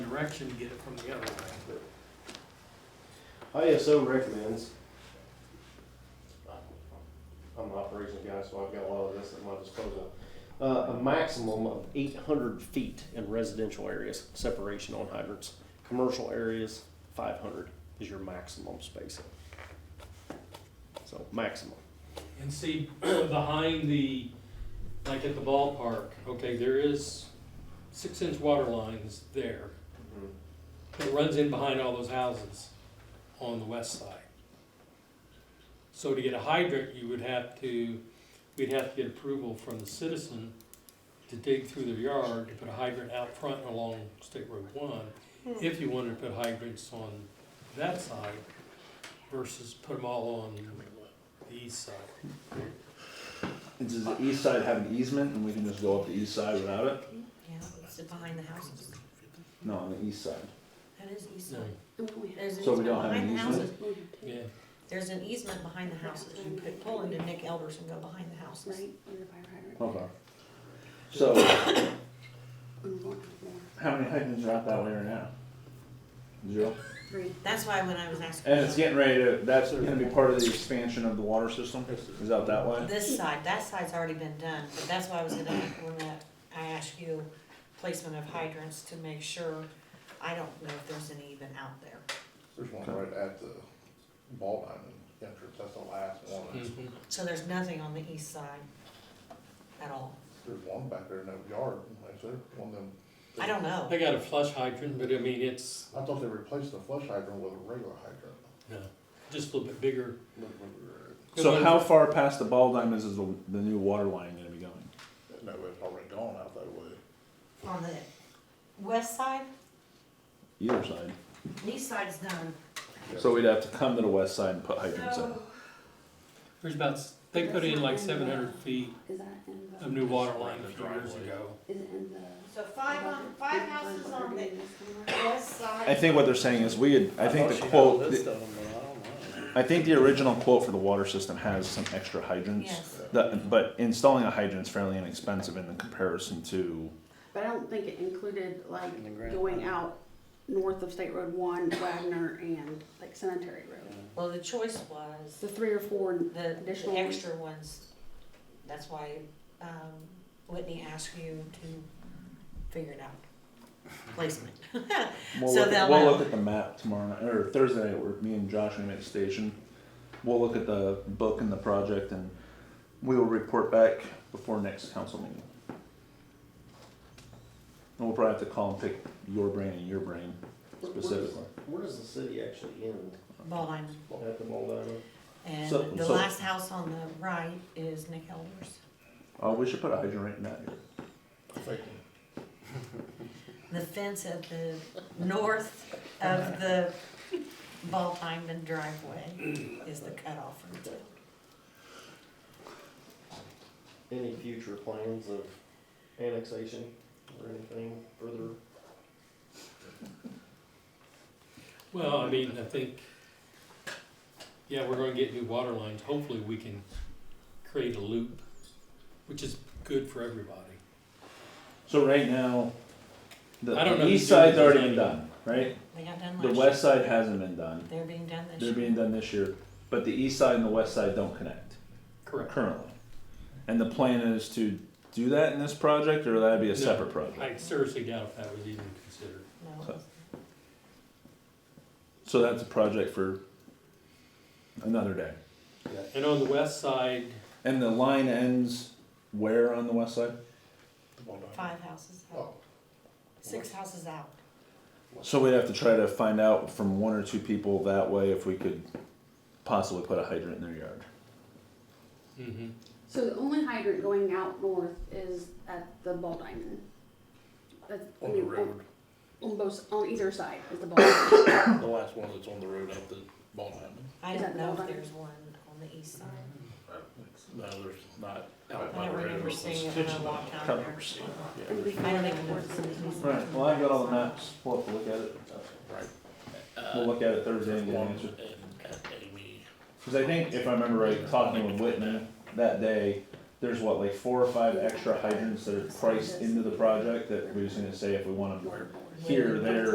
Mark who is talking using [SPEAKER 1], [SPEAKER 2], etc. [SPEAKER 1] direction to get it from the other way.
[SPEAKER 2] ISO recommends. I'm an operations guy, so I've got a lot of this at my disposal. Uh, a maximum of eight hundred feet in residential areas, separation on hydrants. Commercial areas, five hundred is your maximum spacing. So maximum.
[SPEAKER 1] And see, behind the, like at the ballpark, okay, there is six inch water lines there. It runs in behind all those houses on the west side. So to get a hydrant, you would have to, we'd have to get approval from the citizen to dig through their yard to put a hydrant out front and along State Road one, if you wanted to put hydrants on that side versus put them all on the east side.
[SPEAKER 3] Does the east side have an easement and we can just go up the east side without it?
[SPEAKER 4] Yeah, it's behind the houses.
[SPEAKER 3] No, on the east side.
[SPEAKER 4] That is east
[SPEAKER 1] No,
[SPEAKER 4] side. There's an
[SPEAKER 3] So we
[SPEAKER 4] easement
[SPEAKER 3] don't have
[SPEAKER 4] behind
[SPEAKER 3] an
[SPEAKER 4] the
[SPEAKER 3] easement?
[SPEAKER 4] houses.
[SPEAKER 1] yeah,
[SPEAKER 4] There's an easement behind the houses. You could pull into Nick Elders and go behind the houses.
[SPEAKER 3] Okay. So, how many hydrants are out that way right now? Zero.
[SPEAKER 4] That's why when I was asking.
[SPEAKER 3] And it's getting ready to, that's gonna be part of the expansion of the water system, is out that way?
[SPEAKER 4] This side, that side's already been done, but that's why I was gonna, when that, I asked you placement of hydrants to make sure, I don't know if there's any even out there.
[SPEAKER 5] There's one right at the ball diamond entrance, that's the last one.
[SPEAKER 1] mhm.
[SPEAKER 4] So there's nothing on the east side at all.
[SPEAKER 5] There's one back there in that yard, is there, one of them?
[SPEAKER 4] I don't know.
[SPEAKER 1] They got a flush hydrant, but I mean, it's,
[SPEAKER 5] I thought they replaced the flush hydrant with a regular hydrant.
[SPEAKER 1] no, just a little bit bigger.
[SPEAKER 5] Look, look, look.
[SPEAKER 3] So how far past the ball diamonds is the, the new water line gonna be going?
[SPEAKER 5] No, it's already gone out that way.
[SPEAKER 4] On the west side,
[SPEAKER 3] Either side.
[SPEAKER 4] east side's done.
[SPEAKER 3] So we'd have to come to the west side and put hydrants uh, in.
[SPEAKER 1] There's about, s- they put in like seven hundred feet
[SPEAKER 6] Is that in the?
[SPEAKER 1] of new water line a few years ago.
[SPEAKER 6] Is it in the?
[SPEAKER 7] So five on, five houses on the west side.
[SPEAKER 3] I think what they're saying is we had, I think the quote, the- I think the original quote for the water system has some extra hydrants.
[SPEAKER 4] Yes.
[SPEAKER 3] That, but installing a hydrant is fairly inexpensive in the comparison to,
[SPEAKER 6] But I don't think it included like going out north of State Road One, Wagner, and like Cemetery Road.
[SPEAKER 4] Well, the choice was.
[SPEAKER 6] The three or four
[SPEAKER 4] The, the
[SPEAKER 6] additional.
[SPEAKER 4] extra ones, that's why, um, Whitney asked you to figure it out, placement.
[SPEAKER 3] we'll
[SPEAKER 4] So
[SPEAKER 3] look, at-
[SPEAKER 4] they'll
[SPEAKER 3] we'll
[SPEAKER 4] know.
[SPEAKER 3] look at the map tomorrow, night or Thursday night, where me and Josh are gonna make the station. We'll look at the book and the project and we will report back before next council meeting. And we'll probably have to call and pick your brain and your brain specifically.
[SPEAKER 2] Where does the city actually end?
[SPEAKER 4] Ball diamond,
[SPEAKER 2] At the Ball Diamond?
[SPEAKER 4] and
[SPEAKER 3] So-
[SPEAKER 4] the
[SPEAKER 3] so-
[SPEAKER 4] last house on the right is Nick Elders.
[SPEAKER 3] Oh, we should put a hydrant right in that here.
[SPEAKER 5] I think
[SPEAKER 4] The fence at the north of the Ball diamond driveway is the cutoff for the town.
[SPEAKER 2] Any future plans of annexation or anything further?
[SPEAKER 1] Well, I mean, I think, yeah, we're gonna get new water lines. Hopefully, we can create a loop, which is good for everybody.
[SPEAKER 3] So right now, the,
[SPEAKER 1] I don't know
[SPEAKER 3] the
[SPEAKER 1] if
[SPEAKER 3] east
[SPEAKER 1] you do
[SPEAKER 3] side's
[SPEAKER 1] the design.
[SPEAKER 3] already been done, right?
[SPEAKER 4] They got done last
[SPEAKER 3] The
[SPEAKER 4] year.
[SPEAKER 3] west side hasn't been done.
[SPEAKER 4] They're being done this
[SPEAKER 3] They're
[SPEAKER 4] year.
[SPEAKER 3] being done this year, but the east side and the west side don't connect
[SPEAKER 1] Correct.
[SPEAKER 3] currently. And the plan is to do that in this project, or that'd be a
[SPEAKER 1] No.
[SPEAKER 3] separate project.
[SPEAKER 1] I seriously doubt if that was even considered.
[SPEAKER 4] No,
[SPEAKER 3] So- So that's a project for another day.
[SPEAKER 1] And on the west side,
[SPEAKER 3] And the line ends where on the west side?
[SPEAKER 5] the ball diamond.
[SPEAKER 4] five houses out,
[SPEAKER 5] Oh,
[SPEAKER 4] six houses out.
[SPEAKER 3] So we'd have to try to find out from one or two people that way if we could possibly put a hydrant in their yard.
[SPEAKER 1] hmm
[SPEAKER 6] So the only hydrant going out north is at the Ball Diamond. That's, I
[SPEAKER 5] on the
[SPEAKER 6] mean,
[SPEAKER 5] road,
[SPEAKER 6] On both, on either side is the Ball Diamond.
[SPEAKER 5] the last one that's on the road out the ball diamond.
[SPEAKER 4] I
[SPEAKER 6] Is
[SPEAKER 4] don't
[SPEAKER 6] that
[SPEAKER 4] know if
[SPEAKER 6] Ball Diamond?
[SPEAKER 4] there's one on the east side.
[SPEAKER 5] No, there's not. out by
[SPEAKER 4] I
[SPEAKER 5] the
[SPEAKER 4] remember
[SPEAKER 5] road.
[SPEAKER 4] seeing it when I walked down there. I don't even know if it's in the east.
[SPEAKER 3] Right, well, I've got all the maps, we'll have to look at it.
[SPEAKER 5] Right.
[SPEAKER 3] We'll look at it Thursday and get an answer. Cause I think, if I remember right, talking with Whitman that day, there's what, like four or five extra hydrants that are priced into the project that we're just gonna say if we want them here, there,